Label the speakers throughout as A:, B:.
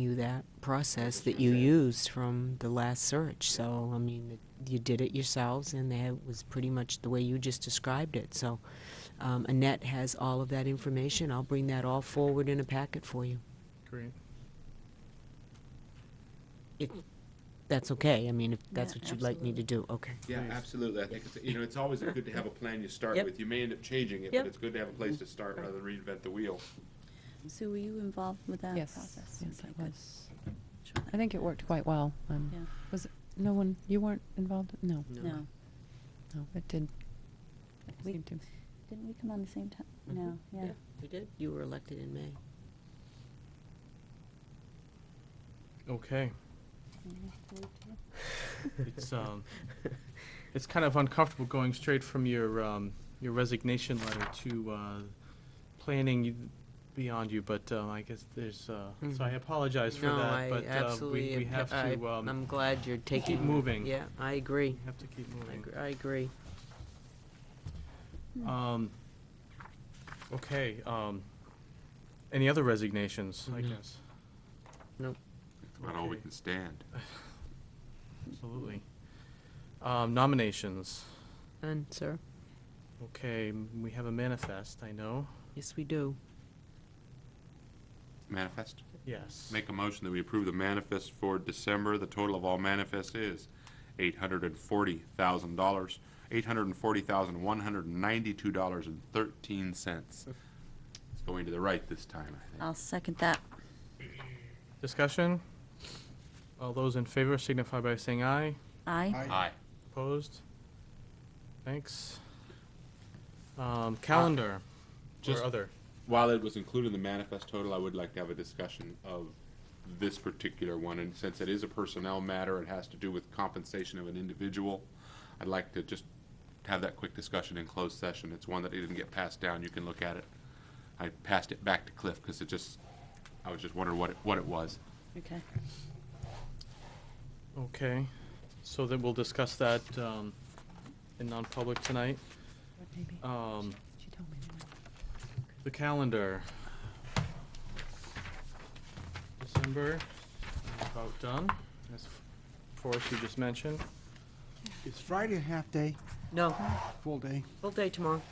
A: you that process that you used from the last search, so, I mean, it- you did it yourselves, and that was pretty much the way you just described it, so, um, Annette has all of that information, I'll bring that all forward in a packet for you,
B: Great.
A: if that's okay, I mean, if that's
C: Yeah,
A: what you'd like me to do, okay.
D: Yeah,
B: Please.
D: absolutely. I think it's, you know, it's always good to have a plan you start
A: Yep.
D: with. You may end up changing it,
A: Yep.
D: but it's good to have a place to start rather than reinvent the wheel.
C: Sue, were you involved with that
E: Yes,
C: process?
E: yes,
C: Okay,
E: I
C: good.
E: was.
C: Sure.
E: I think it worked quite well. Um,
C: Yeah.
E: Was it, no one, you weren't involved? No,
C: No,
E: no, it did. it
C: We-
E: seemed to-
C: didn't we come on the same time?
A: Mhm.
C: No, yeah.
A: You did, you were elected in May.
B: Okay. It's um, it's kind of uncomfortable going straight from your um, your resignation letter to uh, planning you- beyond you, but um, I guess there's uh, so I
A: Mhm.
B: apologize for
A: No,
B: that,
A: I
B: but
A: absolutely.
B: uh, we, we
A: am-
B: have
A: I,
B: to um,
A: I'm glad you're taking.
B: moving.
A: Yeah, I agree.
B: we have to keep
A: I
B: moving.
A: agree. I agree.
B: Um, okay. Um, any other resignations? I
A: Mhm.
B: guess
D: That's about all we
B: Okay.
D: can stand.
B: absolutely. Um, nominations.
A: And sir,
B: Okay, m- we have a manifest. I know.
A: yes, we do.
D: Manifest.
B: Yes.
D: Make a motion that we approve the manifest for December. The total of all manifest is eight hundred and forty thousand dollars, eight hundred and forty thousand, one hundred and ninety-two dollars and thirteen cents. It's going to the right this time, I think.
C: I'll second that.
B: Discussion? All those in favor signify by saying aye.
C: Aye.
D: Aye.
B: Opposed? Thanks. Um, calendar or
D: Just-
B: other?
D: While it was included in the manifest total, I would like to have a discussion of this particular one, and since it is a personnel matter, it has to do with compensation of an individual. I'd like to just have that quick discussion in closed session. It's one that didn't get passed down. You can look at it. I passed it back to Cliff because it just, I was just wondering what it, what it was.
C: Okay.
B: Okay, so then we'll discuss that, um, in non-public tonight.
E: Maybe.
B: Um,
E: She told me. that.
B: the calendar. December, about done, as Forrest you just mentioned.
F: Is Friday a half day,
A: No,
F: full day?
A: full day tomorrow.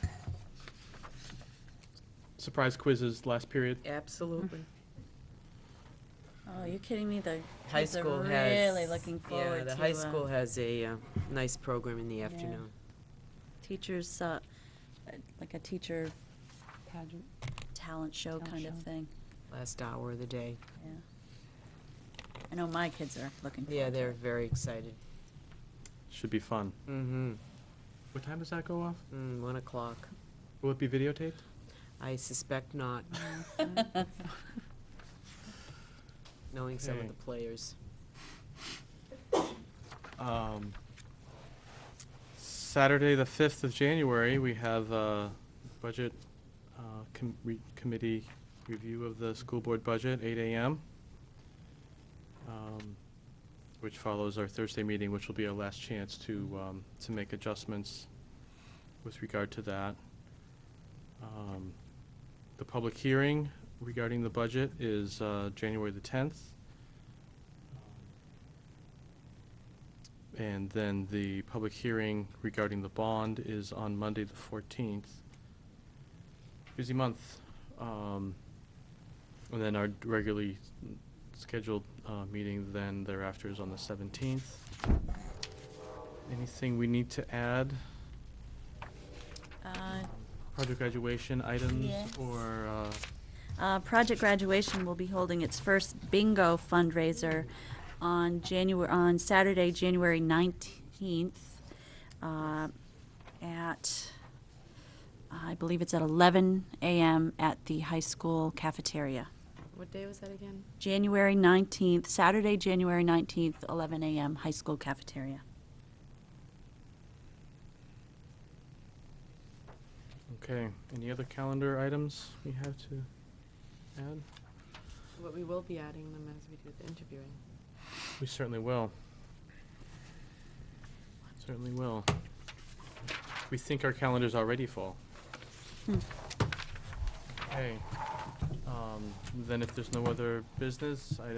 B: Surprise quizzes last period.
A: Absolutely.
C: Mm-hmm. Oh, you're kidding me? The
A: High
C: kids
A: school
C: are
A: has.
C: really looking
A: Yeah,
C: forward
A: the
C: to.
A: high
C: uh,
A: school has a uh, nice program in the afternoon.
C: Teachers, uh, uh, like a teacher
E: Pageant.
C: talent show
E: Talent
C: kind of
E: show.
C: thing.
A: Last hour of the day.
C: Yeah. I know my kids are looking forward.
A: Yeah,
C: to
A: they're
C: it.
A: very excited.
B: Should be fun.
A: Mm-hmm.
B: What time does that go off?
A: Mm, one o'clock.
B: Will it be videotaped?
A: I suspect not, knowing some of
B: Okay.
A: the players.
B: Um, Saturday, the 5th of January, we have a budget uh, com- re- committee review of the school board budget, 8 a.m., um, which follows our Thursday meeting, which will be our last chance to, um, to make adjustments with regard to that. Um, The public hearing regarding the budget is uh, January the 10th. And then the public hearing regarding the bond is on Monday, the 14th. Busy month. Um, And then our regularly scheduled uh, meeting then thereafter is on the 17th. Anything we need to add?
C: Uh,
B: Project graduation items
C: Yes.
B: or, uh,
C: Uh, Project Graduation will be holding its first bingo fundraiser on January, on Saturday, January 19th, uh, at, I believe it's at 11 a.m. at the high school cafeteria.
E: What day was that again?
C: January 19th, Saturday, January 19th, 11 a.m., high school cafeteria.
B: okay, any other calendar items we have to add?
G: But we will be adding them as we do the interviewing.
B: We certainly will. Certainly will. We think our calendar's already full. Okay. Um, then if there's no other business, I'd